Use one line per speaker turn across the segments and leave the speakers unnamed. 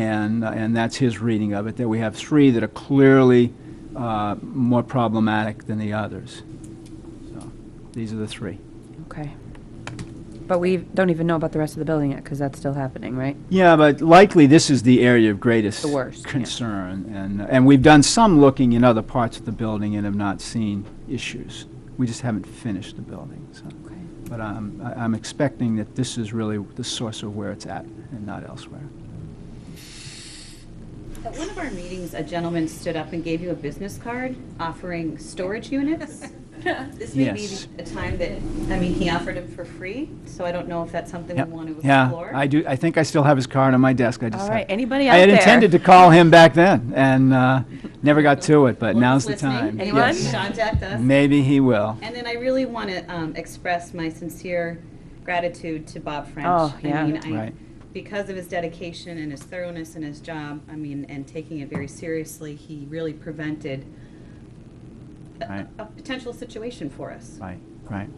and, uh, and that's his reading of it, that we have three that are clearly uh, more problematic than the others. So, These are the three.
Okay. But we don't even know about the rest of the building yet, because that's still happening, right?
Yeah, but likely this is the area of greatest
The worst, yeah.
concern, and, and we've done some looking in other parts of the building and have not seen issues. We just haven't finished the building, so.
Okay.
But I'm, I- I'm expecting that this is really the source of where it's at and not elsewhere.
At one of our meetings, a gentleman stood up and gave you a business card offering storage units. This may be
Yes.
a time that, I mean, he offered them for free, so I don't know if that's something we
Yep.
want to explore.
Yeah, I do, I think I still have his card on my desk, I just.
All
have-
right, anybody
I
out
had
there?
intended to call him back then, and uh, never got to it, but
Well,
now's the
who's
time.
listening? Anyone?
Yes.
Contact us.
Maybe he will.
And then I really want to express my sincere gratitude to Bob French.
Oh, yeah.
I mean, I,
Right.
because of his dedication and his thoroughness in his job, I mean, and taking it very seriously, he really prevented
Right.
a- a a potential situation for us.
Right, right.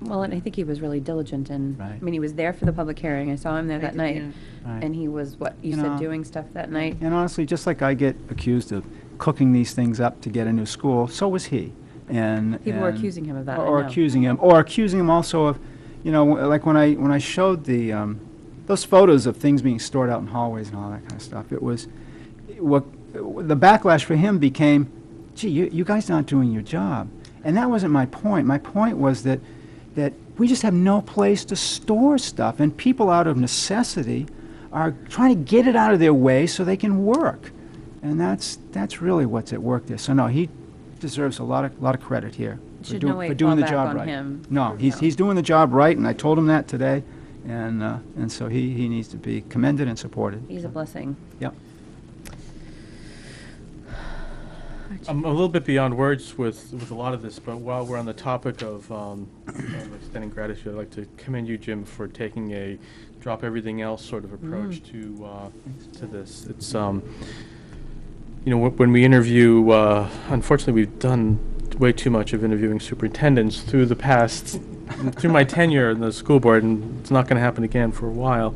Well, and I think he was really diligent and, I
Right.
mean, he was there for the public hearing. I saw him there
I
that
did,
night.
yeah. Right.
And he was, what, you
You
said,
know-
doing stuff that night?
And honestly, just like I get accused of cooking these things up to get a new school, so was he. And
People were
and-
accusing him of that, I
Or
know.
accusing him, or accusing him also of, you know, like when I when I showed the um, those photos of things being stored out in hallways and all that kind of stuff. It was what the backlash for him became. Gee, you, you guys aren't doing your job, and that wasn't my point. My point was that that we just have no place to store stuff, and people out of necessity are trying to get it out of their way so they can work. And that's, that's really what's at work there. So no, he deserves a lot of, lot of credit here. for
Should
doing-
no
for
weight
doing
fall
the
back
job
on
right.
him?
No, he's,
No.
he's doing the job right, and I told him that today, and, uh, and so he, he needs to be commended and supported.
He's a blessing.
Yep.
I'm a little bit beyond words with, with a lot of this, but while we're on the topic of um, of extending gratitude, I'd like to commend you, Jim, for taking a drop everything else sort of approach to uh, to this. It's um, you know, wh- when we interview, uh, unfortunately, we've done way too much of interviewing superintendents through the past, through my tenure in the school board, and it's not going to happen again for a while.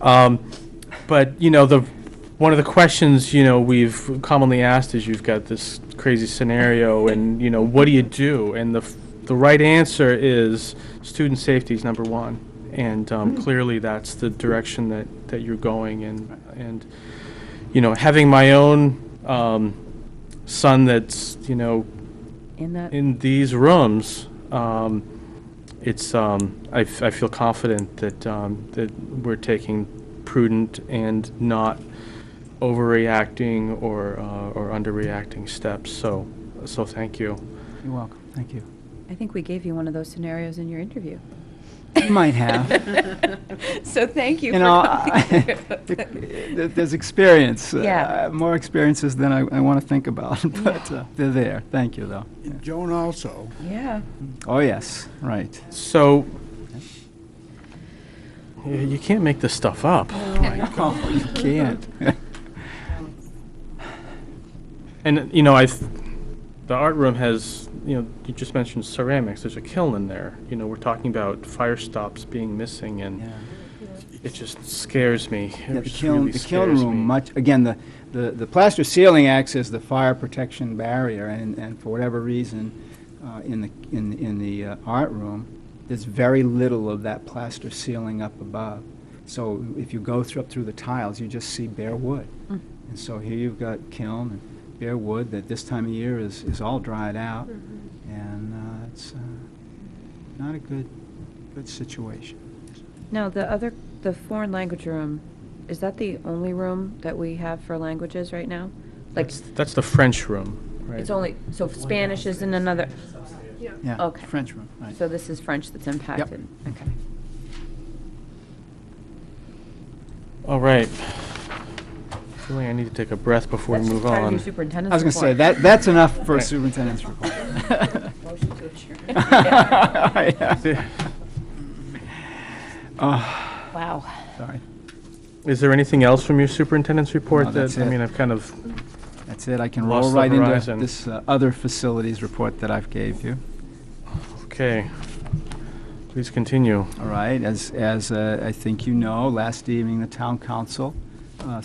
Um, but you know, the one of the questions you know we've commonly asked is you've got this crazy scenario, and you know, what do you do? And the f- the right answer is student safety is number one, and um, clearly that's the direction that that you're going, and and you know, having my own um, son that's you know
In that,
in these rooms, um, it's um, I, f- I feel confident that um, that we're taking prudent and not overreacting or uh, or underreacting steps. So so thank you.
You're welcome. Thank you.
I think we gave you one of those scenarios in your interview.
You might have.
So thank you for
You know,
coming.
I- th- th- there's experience. uh,
Yeah.
More experiences than I, I want to think about, but uh, they're there. Thank you, though. Yeah.
Joan also.
Yeah.
Oh, yes, right.
So. y- You can't make this stuff up.
Oh, you can't.
And you know, I, th- the art room has you know you just mentioned ceramics. There's a kiln in there. You know, we're talking about fire stops being missing, and
Yeah.
it just scares me. It
Yeah, the
just
kiln,
really
the kiln
scares
room,
me.
much, again, the, the, the plaster ceiling acts as the fire protection barrier, and, and for whatever reason, uh, in the, in, in the uh, art room, there's very little of that plaster ceiling up above. So if you go through, up through the tiles, you just see bare wood.
Mm-hmm.
And so here you've got kiln and bare wood that this time of year is, is all dried out,
Mm-hmm.
and, uh, it's, uh, not a good, good situation.
Now, the other, the foreign language room, is that the only room that we have for languages right now? Like,
That's, that's the French room, right?
it's only, so Spanish is in another,
Yeah,
Okay.
French room, right.
so this is French that's impacted? Okay.
All right. Really, I need to take a breath before we move on.
I was going to say, that, that's enough for a superintendent's report.
Motion to adjourn.
Wow.
Sorry,
Is there anything else from your superintendent's report
No,
that
that's
I
it.
mean, I've kind of
that's it, I can
Lost
roll
the
right into
horizon.
this uh, other facilities report that I've gave you.
okay. Please continue.
All right, as, as uh, I think you know, last evening, the town council